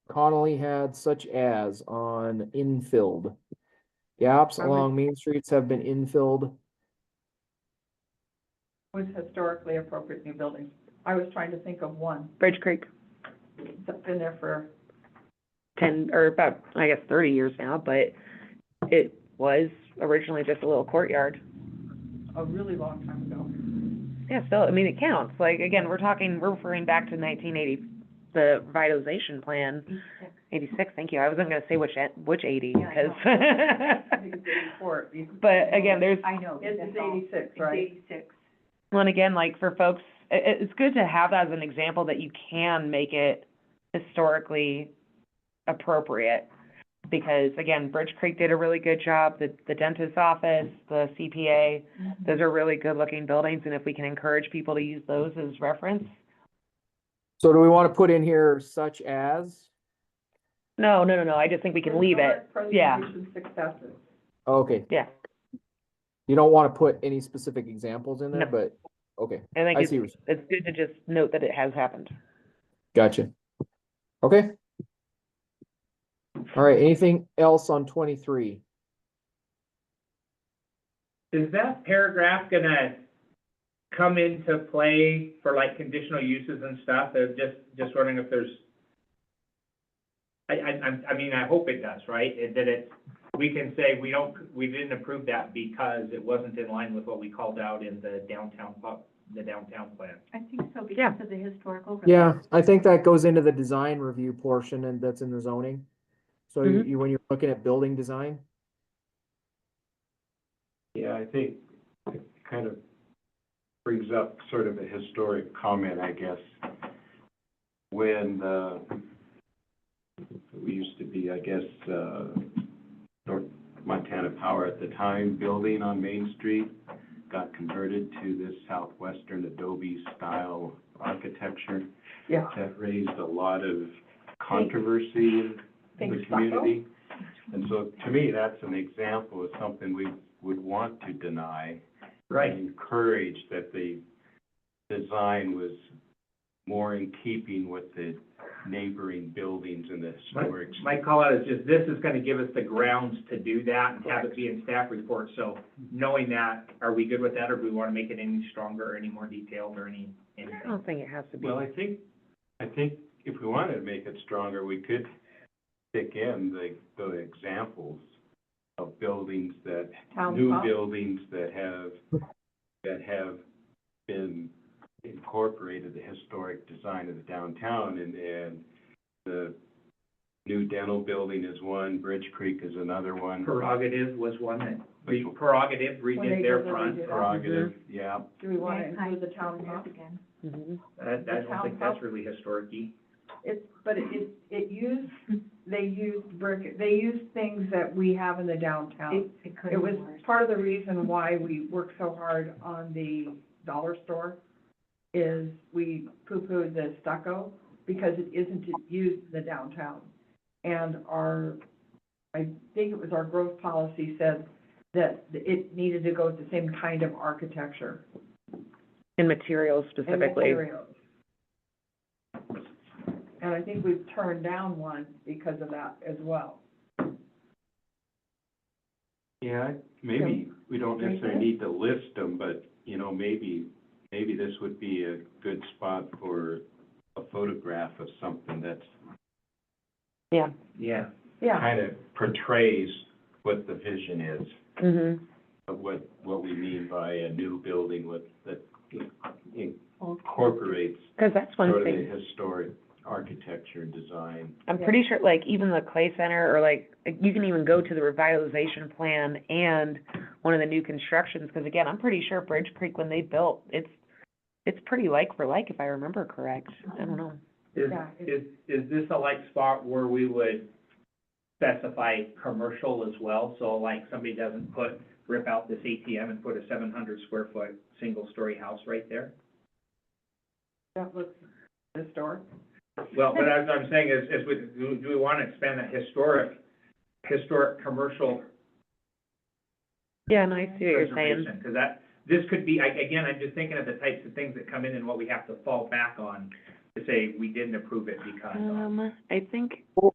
Connolly had such as on infilled. Gaps I would- along main streets have been infilled. was historically appropriate new buildings. I was trying to think of one Bridge Creek, that's been there for, ten, or about, I guess, thirty years now, but it was originally just a little courtyard. a really long time ago. Yeah, still, I mean, it counts. Like, again, we're talking, we're referring back to nineteen eighty, the revitalization plan, eighty-six, thank you. I wasn't gonna say which, e- which eighty, Yeah, I know. because. I think it's eighty-four. But again, there's, I know. but It's that's it's all. eighty-six, It's right? eighty-six. well, and again, like, for folks, i- i- it's good to have that as an example that you can make it historically appropriate. Because again, Bridge Creek did a really good job, the, the dentist's office, the CPA, those are really good-looking buildings, and if we can encourage people to use those as reference, So do we want to put in here such as? No, no, no, no, I just think we can leave it, Historic yeah. preservation Successes. Okay. Yeah. You don't want to put any specific examples in there, No. but, okay, I think I see, it's, what you- it's good to just note that it has happened. gotcha. Okay. All right, anything else on twenty-three? Is that paragraph gonna come into play for like conditional uses and stuff? I'm just, just wondering if there's, I, I, I'm- I mean, I hope it does, right? It- That it, we can say we don't, we didn't approve that because it wasn't in line with what we called out in the downtown, pub- the downtown plan. I think so because Yeah. of the historical. overlap. Yeah, I think that goes into the design review portion and that's in the zoning. So you, Mhm. you- when you're looking at building design, Yeah, I think it kind of brings up sort of a historic comment, I guess. When the, we used to be, I guess, uh, North Montana Power at the time, building on Main Street, got converted to this southwestern adobe style architecture. Yeah. That raised a lot of controversy in Think the stucco? community. And so, to me, that's an example of something we would want to deny. and Encourage that the design was more in keeping with the neighboring buildings and the My, historic. my call out is just, this is gonna give us the grounds to do that and have it be in staff report, so knowing that, are we good with that, or do we wanna make it any stronger, or any more detailed, or any, anything? I don't think it has to be. Well, I think, I think if we wanted to make it stronger, we could stick in the, the examples of buildings that Town new pump. buildings that have, that have been incorporated the historic design of the downtown and, and the new dental building is one, Bridge Creek is another one. Prerogative was one that, the Prerogative When they redid their did the front, redid. Prerogative, yeah. Do we want to Mankind include the is town doing hall? that Again. Mhm. that, I don't think that's really historic-y. It's, but it- it, it used, they used brick, they used things that we have in the downtown. It, it could It have was been worse. part of the reason why we worked so hard on the dollar store is we poo-pooed the stucco because it isn't used in the downtown. And our, I think it was our growth policy said that it needed to go with the same kind of architecture And materials and specifically. materials. And I think we've turned down one because of that as well. Yeah, maybe, we don't necessarily need to list them, but, you know, maybe, maybe this would be a good spot for a photograph of something that's Yeah. Yeah. Yeah, kind of portrays what the vision is hmm of what, what we mean by a new building with, that incorporates Because that's sort one of thing. the historic architecture and design. I'm Yeah. pretty sure, like, even the Clay Center, or like, you can even go to the revitalization plan and one of the new constructions, because again, I'm pretty sure Bridge Creek, when they built, it's, it's pretty like for like, if I remember correct. I don't know. Is, Yeah, it- is, is this a like spot where we would specify commercial as well? So like somebody doesn't put, rip out this ATM and put a seven hundred square foot, single story house right there? that looks historic. Well, but as I'm saying is, is we, do do we wanna expand that historic, historic commercial Yeah, no, I see what you're saying. preservation? Cause that, this could be, I, again, I'm just thinking of the types of things that come in and what we have to fall back on to say we didn't approve it because of. Um, I think